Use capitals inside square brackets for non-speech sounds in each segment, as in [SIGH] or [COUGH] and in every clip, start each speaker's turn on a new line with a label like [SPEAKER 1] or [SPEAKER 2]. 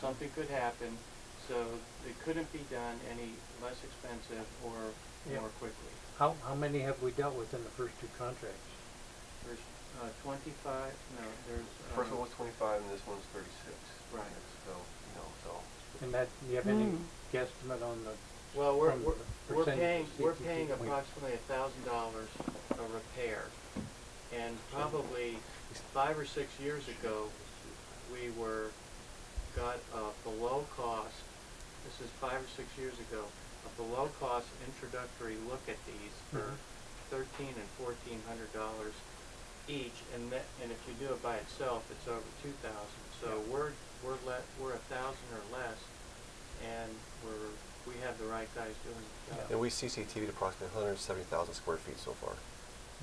[SPEAKER 1] something could happen, so it couldn't be done any less expensive or
[SPEAKER 2] Yeah.
[SPEAKER 1] more quickly.
[SPEAKER 2] How, how many have we dealt with in the first two contracts?
[SPEAKER 1] There's uh, twenty-five, no, there's.
[SPEAKER 3] First one
[SPEAKER 1] um,
[SPEAKER 3] was twenty-five and this one's thirty-six.
[SPEAKER 1] Right.
[SPEAKER 3] So, you know, so,
[SPEAKER 2] And that, you have any
[SPEAKER 4] Mm.
[SPEAKER 2] guesstimate on the,
[SPEAKER 1] Well, we're,
[SPEAKER 2] from
[SPEAKER 1] we're,
[SPEAKER 2] the
[SPEAKER 1] we're
[SPEAKER 2] percentage
[SPEAKER 1] paying,
[SPEAKER 2] of
[SPEAKER 1] we're
[SPEAKER 2] CTP
[SPEAKER 1] paying
[SPEAKER 2] point.
[SPEAKER 1] approximately a thousand dollars a repair. And probably five or six years ago, we were, got a below cost, this is five or six years ago, a below cost introductory look at these for
[SPEAKER 2] Mhm.
[SPEAKER 1] thirteen and fourteen hundred dollars each. And that, and if you do it by itself, it's over two thousand. So we're, we're let, we're a thousand or less and we're, we have the right guys doing the job.
[SPEAKER 3] and we CCTV'd approximately hundred and seventy thousand square feet so far.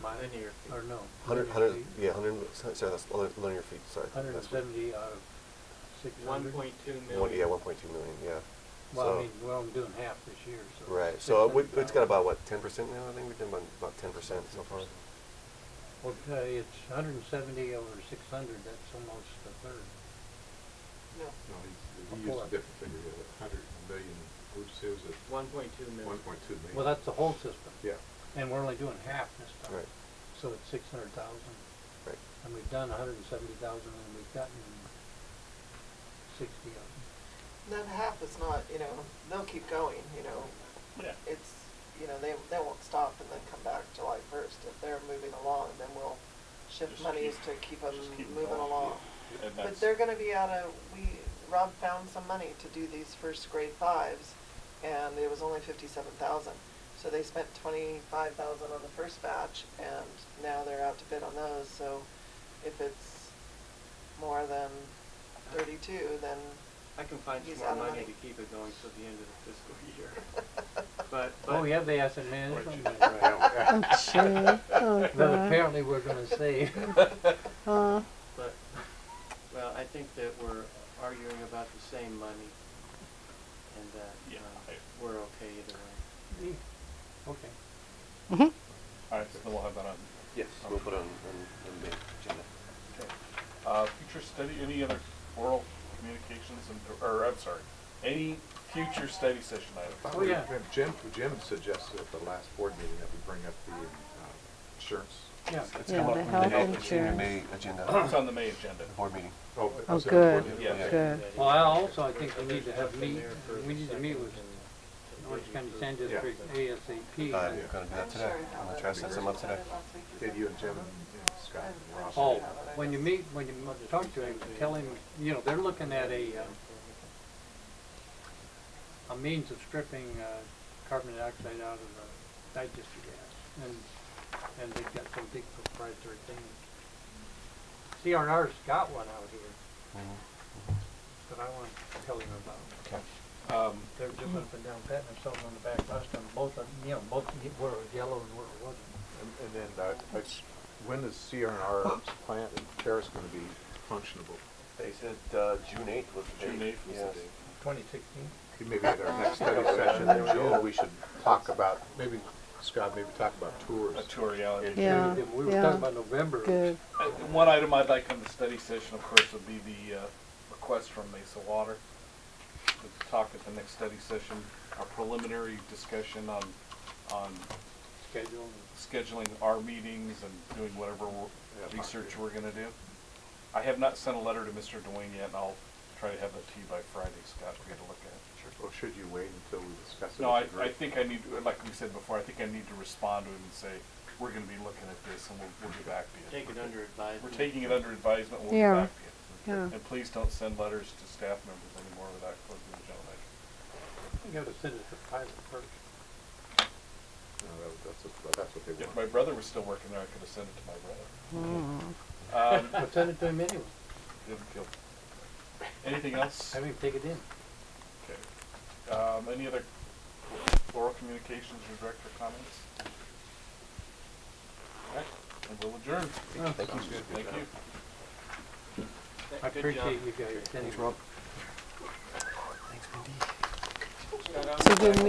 [SPEAKER 2] my,
[SPEAKER 1] Linear
[SPEAKER 2] or
[SPEAKER 1] feet.
[SPEAKER 2] no?
[SPEAKER 3] Hundred,
[SPEAKER 2] linear
[SPEAKER 3] hundred,
[SPEAKER 2] feet?
[SPEAKER 3] yeah, hundred, sorry, that's li- linear feet, sorry. that's
[SPEAKER 2] Hundred and
[SPEAKER 3] what-
[SPEAKER 2] seventy out of six
[SPEAKER 1] One
[SPEAKER 2] hundred?
[SPEAKER 1] point two
[SPEAKER 3] One, yeah,
[SPEAKER 1] million.
[SPEAKER 3] one point two million, yeah.
[SPEAKER 2] Well, I
[SPEAKER 3] So-
[SPEAKER 2] mean, we're only doing half this year, so.
[SPEAKER 3] Right, so we, it's
[SPEAKER 2] 600,000.
[SPEAKER 3] got about, what, ten percent now, I think we've done about, about ten percent so far.
[SPEAKER 2] Okay, uh, it's hundred and seventy over six hundred, that's almost a third.
[SPEAKER 5] No, he's-
[SPEAKER 2] Of
[SPEAKER 5] he used a
[SPEAKER 2] what?
[SPEAKER 5] different figure, he had a hundred million, which is at
[SPEAKER 1] One point two million.
[SPEAKER 5] one point two million.
[SPEAKER 2] Well, that's the whole system.
[SPEAKER 5] Yeah,
[SPEAKER 2] And we're only doing half this time.
[SPEAKER 3] Right,
[SPEAKER 2] So it's six hundred thousand,
[SPEAKER 3] right.
[SPEAKER 2] and we've done a hundred and seventy thousand, and we've gotten sixty of them.
[SPEAKER 6] That half is not, you know, they'll keep going, you know.
[SPEAKER 7] Yeah.
[SPEAKER 6] It's, you know, they, they won't stop and then come back July first. If they're moving along, then we'll shift
[SPEAKER 7] Just
[SPEAKER 6] monies to
[SPEAKER 7] keep-
[SPEAKER 6] keep them
[SPEAKER 7] just keep
[SPEAKER 6] moving
[SPEAKER 7] going,
[SPEAKER 6] along. But
[SPEAKER 7] And that's-
[SPEAKER 6] they're gonna be out of, we, Rob found some money to do these first grade fives, and it was only fifty-seven thousand. So they spent twenty-five thousand on the first batch, and now they're out to bid on those, so if it's more than thirty-two, then
[SPEAKER 1] I can find some
[SPEAKER 6] He's
[SPEAKER 1] more
[SPEAKER 6] out of
[SPEAKER 1] money to
[SPEAKER 6] money.
[SPEAKER 1] keep it going till the end of the fiscal year.
[SPEAKER 6] [LAUGHS]
[SPEAKER 1] But,
[SPEAKER 2] Oh,
[SPEAKER 1] but-
[SPEAKER 2] yeah, the asset [LAUGHS] management, right.
[SPEAKER 5] Right.
[SPEAKER 4] Oh, gee. Oh,
[SPEAKER 2] But
[SPEAKER 4] God.
[SPEAKER 2] apparently we're gonna save.
[SPEAKER 4] Uh,
[SPEAKER 1] But, well, I think that we're arguing about the same money and that,
[SPEAKER 7] Yeah,
[SPEAKER 1] uh,
[SPEAKER 7] I-
[SPEAKER 1] we're okay either way.
[SPEAKER 2] Okay.
[SPEAKER 7] All right, so then we'll have that on.
[SPEAKER 3] Yes,
[SPEAKER 7] we'll
[SPEAKER 3] we'll
[SPEAKER 7] put
[SPEAKER 3] put
[SPEAKER 7] it
[SPEAKER 3] on, on the agenda.
[SPEAKER 7] Okay. Uh, future study, any other oral communications and, or, I'm sorry, any future study session
[SPEAKER 5] I
[SPEAKER 7] items?
[SPEAKER 2] Oh,
[SPEAKER 5] would-
[SPEAKER 2] yeah.
[SPEAKER 5] Jim, Jim suggested at the last board meeting that we bring up the uh, insurance.
[SPEAKER 2] Yeah,
[SPEAKER 4] yeah, the health
[SPEAKER 3] In
[SPEAKER 4] insurance.
[SPEAKER 3] May agenda,
[SPEAKER 7] It's on the May agenda.
[SPEAKER 3] the board meeting.
[SPEAKER 5] Oh, but-
[SPEAKER 4] Oh,
[SPEAKER 5] so the board
[SPEAKER 4] good.
[SPEAKER 5] meeting-
[SPEAKER 7] Yeah.
[SPEAKER 4] Good.
[SPEAKER 2] well, I also, I think we need to have meet, we need to meet with Orange County Sand District
[SPEAKER 3] I'm
[SPEAKER 2] ASAP.
[SPEAKER 3] Uh, gonna do that today.
[SPEAKER 6] I'm sure how
[SPEAKER 3] I'm gonna
[SPEAKER 6] that-
[SPEAKER 3] try to set some up today.
[SPEAKER 5] Did you and Jim and and Scott and Ross?
[SPEAKER 2] Oh, when you meet, when you talk to him, tell him, you know, they're looking at a, uh, a means of stripping uh, carbon dioxide out of the digestive gas, and, and they've got some big proprietary thing. CRR's got one out here
[SPEAKER 3] Mhm.
[SPEAKER 2] that I want to tell you about.
[SPEAKER 3] Okay.
[SPEAKER 7] Um,
[SPEAKER 2] They're just up and down patting themselves on the back last time, both of, you know, both were yellow and were wasn't.
[SPEAKER 5] And and then, uh, like, when is CRNR's plant in Paris gonna be functionable?
[SPEAKER 3] They said, uh, June eighth was the date.
[SPEAKER 7] June 8th was the
[SPEAKER 3] Yes.
[SPEAKER 7] date.
[SPEAKER 2] Twenty sixteen?
[SPEAKER 5] Maybe at our next study session in June, we should talk about, maybe, Scott, maybe talk about tours.
[SPEAKER 7] a tour, yeah.
[SPEAKER 5] Yeah.
[SPEAKER 4] Yeah,
[SPEAKER 2] We were
[SPEAKER 4] yeah.
[SPEAKER 2] talking about November.
[SPEAKER 4] Good.
[SPEAKER 7] Uh, One item I'd like on the study session, of course, would be the uh, request from Mesa Water to talk at the next study session, our preliminary discussion on, on
[SPEAKER 2] Schedule.
[SPEAKER 7] scheduling our meetings and doing whatever we're-
[SPEAKER 5] Yeah.
[SPEAKER 7] research we're gonna do. I have not sent a letter to Mr. Dwayne yet, and I'll try to have that to you by Friday, Scott, for you to look at.
[SPEAKER 5] Or should you wait until we discuss it?
[SPEAKER 7] No, I,
[SPEAKER 5] with the
[SPEAKER 7] I
[SPEAKER 5] group?
[SPEAKER 7] think I need, to- like we said before, I think I need to respond to him and say, we're gonna be looking at this, and we'll, we'll get back to you.
[SPEAKER 1] Take it under advisement.
[SPEAKER 7] We're taking it under advisement, we'll
[SPEAKER 4] Yeah.
[SPEAKER 7] get back to you.
[SPEAKER 4] Yeah.
[SPEAKER 7] And please don't send letters to staff members anymore without closing the general measure.
[SPEAKER 2] You gotta send it to pilot first.
[SPEAKER 5] No, that- That's, what- that's what they want.
[SPEAKER 7] If my brother was still working there, I could have sent it to my brother.
[SPEAKER 4] Mm.
[SPEAKER 7] Um, [LAUGHS]
[SPEAKER 2] But send it to him anyway,
[SPEAKER 7] he'll- he'll- Anything else?
[SPEAKER 2] have him take it in.
[SPEAKER 7] Okay. Um, any other oral communications or director comments? All right, and we'll adjourn.
[SPEAKER 3] Thank you.
[SPEAKER 7] Thank you.
[SPEAKER 1] Th-
[SPEAKER 2] I
[SPEAKER 1] good job.
[SPEAKER 2] appreciate you guys.
[SPEAKER 3] Thanks, Rob.
[SPEAKER 4] So give me